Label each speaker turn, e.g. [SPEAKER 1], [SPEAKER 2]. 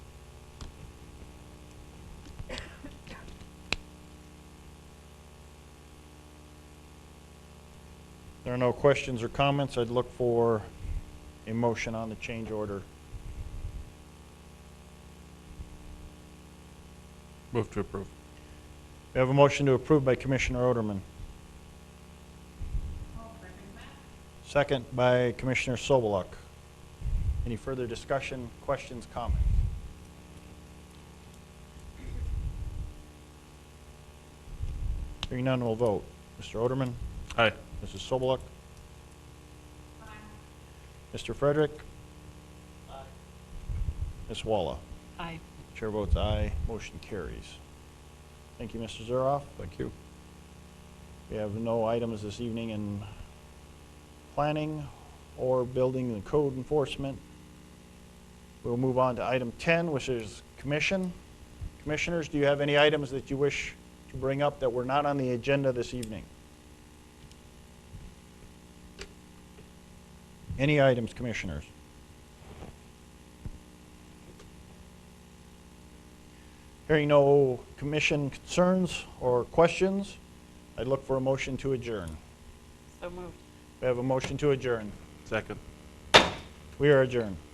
[SPEAKER 1] There are no questions or comments. I'd look for a motion on the change order.
[SPEAKER 2] Move to approve.
[SPEAKER 1] We have a motion to approve by Commissioner Oderman. Second by Commissioner Sobeluk. Any further discussion, questions, comments? Hearing none, we'll vote. Mr. Oderman?
[SPEAKER 2] Aye.
[SPEAKER 1] Mrs. Sobeluk? Mr. Frederick? Ms. Walla?
[SPEAKER 3] Aye.
[SPEAKER 1] Chair votes aye, motion carries. Thank you, Mr. Zuroff.
[SPEAKER 2] Thank you.
[SPEAKER 1] We have no items this evening in planning or building and code enforcement. We'll move on to item 10, which is commission. Commissioners, do you have any items that you wish to bring up that were not on the agenda this evening? Any items, commissioners? Hearing no commission concerns or questions, I'd look for a motion to adjourn.
[SPEAKER 3] So moved.
[SPEAKER 1] We have a motion to adjourn.
[SPEAKER 2] Second.
[SPEAKER 1] We are adjourned.